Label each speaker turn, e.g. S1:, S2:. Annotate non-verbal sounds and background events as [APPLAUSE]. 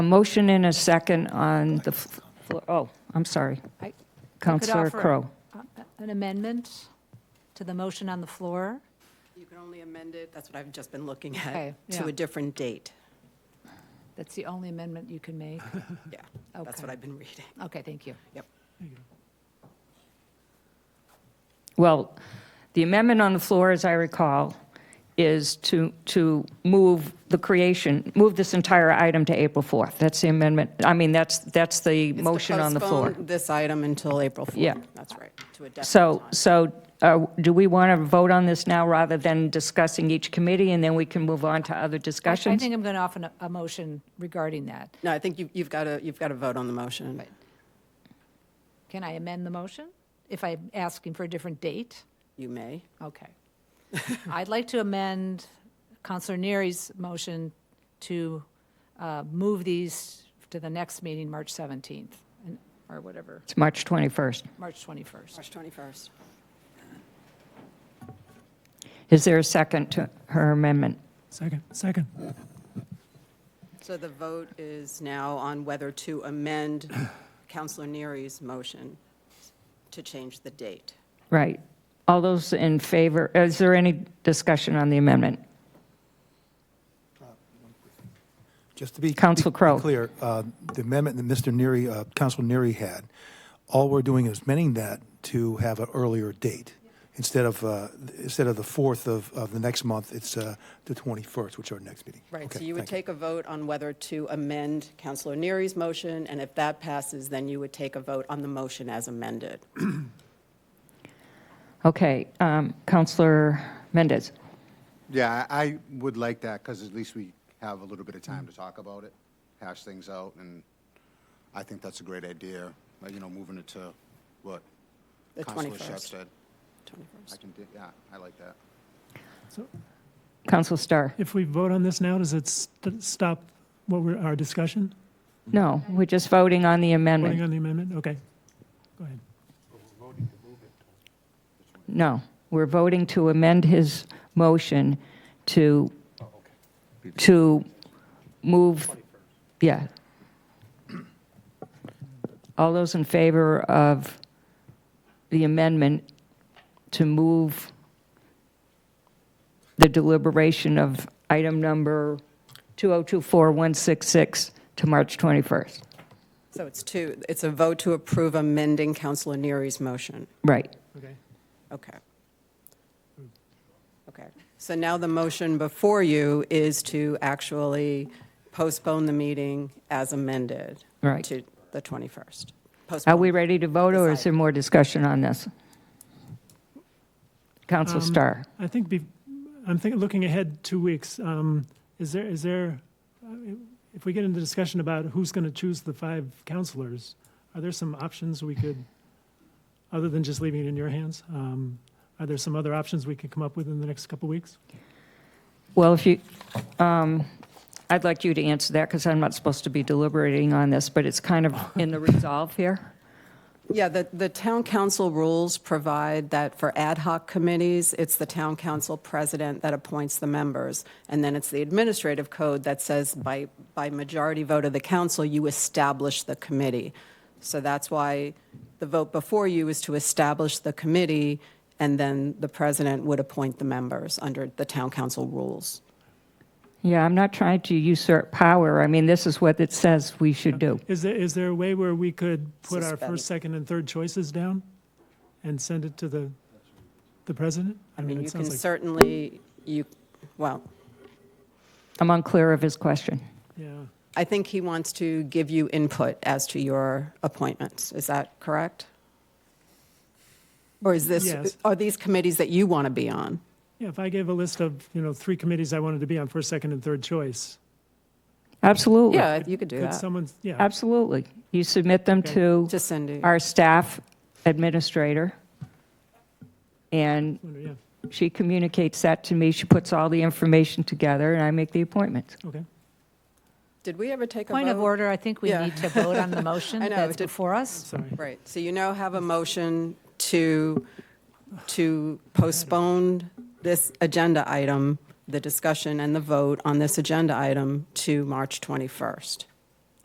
S1: A motion and a second on the, f- floor. oh, I'm sorry.
S2: I-
S1: Counselor
S2: offer-
S1: Crowe.
S2: Uh, An amendment to the motion on the floor?
S3: You can only amend it, that's what I've just been looking
S2: Okay,
S3: at,
S2: yeah.
S3: to a different date.
S2: That's the only amendment you can
S3: [LAUGHS]
S2: make?
S3: Yeah, that's what
S2: Okay.
S3: I've been reading.
S2: Okay, thank you.
S1: Well, the amendment on the floor, as I recall, is to, to move the creation, move this entire item to April 4th. That's the amendment, I mean, that's, that's the
S3: It's to
S1: motion on the floor.
S3: postpone This item until April 4th.
S1: Yeah.
S3: That's right, to a definite
S1: So,
S3: time.
S1: so uh, do we want to vote on this now rather than discussing each committee and then we can move on to other
S2: I- I
S1: discussions?
S2: think I'm going to offer a- a motion regarding that.
S3: No, I think you- you've got to, you've got to vote on the motion.
S2: Can I amend the motion if I'm asking for a different date?
S3: You may. [LAUGHS]
S2: Okay. I'd like to amend Counselor Neary's motion to uh, move these to the next meeting, March 17th, and- or whatever,
S1: It's March 21st.
S2: March 21st.
S3: March 21st.
S1: Is there a second to her amendment?
S4: Second, second.
S3: So the vote is now on whether to
S1: [CLEARS THROAT]
S3: amend Counselor Neary's motion to change the date.
S1: Right. All those in favor, is there any discussion on the amendment?
S5: Just to be.
S1: Counsel
S5: be- be
S1: Crowe.
S5: Clear, uh, the amendment that Mr. Neary, uh, Counsel Neary had, all we're doing is amending that to have an earlier date. Instead of, uh, instead of the 4th of, of the next month, it's uh, the 21st, which is our next meeting.
S3: Right, so
S5: Okay,
S3: you would
S5: thank
S3: take a vote on whether to amend Counselor Neary's motion, and if that passes, then you would take a vote on the motion as amended.
S1: Okay, um, Counselor Mendez.
S6: Yeah, I I would like that, because at least we have a little bit of time to talk about it, hash things out, and I think that's a great idea, like, you know, moving it to what?
S3: The
S6: Counselor
S3: 21st.
S6: Shep said.
S3: 21st.
S6: I can, di- yeah, I like that.
S4: So
S1: Counselor Starr?
S4: if we vote on this now, does it st- stop what we're, our discussion?
S1: No, we're just voting on the
S4: Voting
S1: amendment.
S4: on the amendment? Okay. Go ahead.
S1: No, we're voting to amend his motion to, to move, yeah. All those in favor of the amendment to move the deliberation of item number 2024166 to March 21st?
S3: So it's two, it's a vote to approve amending Counselor Neary's motion.
S1: Right.
S4: Okay.
S3: Okay. Okay. So now the motion before you is to actually postpone the meeting as amended.
S1: Right.
S3: To the 21st.
S1: Are we
S3: Postpone.
S1: ready to vote, or is
S3: Decide.
S1: there more discussion on this? Council
S4: Um,
S1: Starr?
S4: I think be, I'm thinking, looking ahead two weeks, um, is there, is there, uh, if we get into discussion about who's going to choose the five counselors, are there some options we could, other than just leaving it in your hands? Um, are there some other options we could come up with in the next couple weeks?
S1: Well, if you, um, I'd like you to answer that, because I'm not supposed to be deliberating on this, but it's kind of in the resolve here.
S3: Yeah, the, the town council rules provide that for ad hoc committees, it's the town council president that appoints the members. And then it's the administrative code that says by, by majority vote of the council, you establish the committee. So that's why the vote before you is to establish the committee, and then the president would appoint the members under the town council rules.
S1: Yeah, I'm not trying to usurp power. I mean, this is what it says we should do.
S4: Is there, is there a way where we could put our
S3: Suspend.
S4: first, second, and third choices down and send it to the, the president?
S3: I mean,
S4: it
S3: you can
S4: sounds like-
S3: certainly, you, well,
S1: I'm unclear of his question.
S4: Yeah.
S3: I think he wants to give you input as to your appointments. Is that correct? Or is
S4: Yes.
S3: this, are these committees that you want to be on?
S4: Yeah, if I gave a list of, you know, three committees I wanted to be on, first, second, and third choice,
S1: Absolutely,
S3: Yeah, you could do
S4: could
S3: that.
S4: someone, yeah,
S1: absolutely. You submit them
S4: Okay.
S1: to
S3: To Cindy.
S1: our staff administrator, and
S4: wonder, yeah,
S1: She communicates that to me, she puts all the information together, and I make the appointments.
S4: okay.
S3: Did we ever take a vote?
S2: Point of order, I think we
S3: Yeah.
S2: need to vote on
S3: [LAUGHS]
S2: the motion
S3: I know,
S2: that's
S3: it did-
S2: before us.
S4: Sorry.
S3: Right, so you now have a motion to, to postpone this agenda item, the discussion and the vote on this agenda item to March 21st.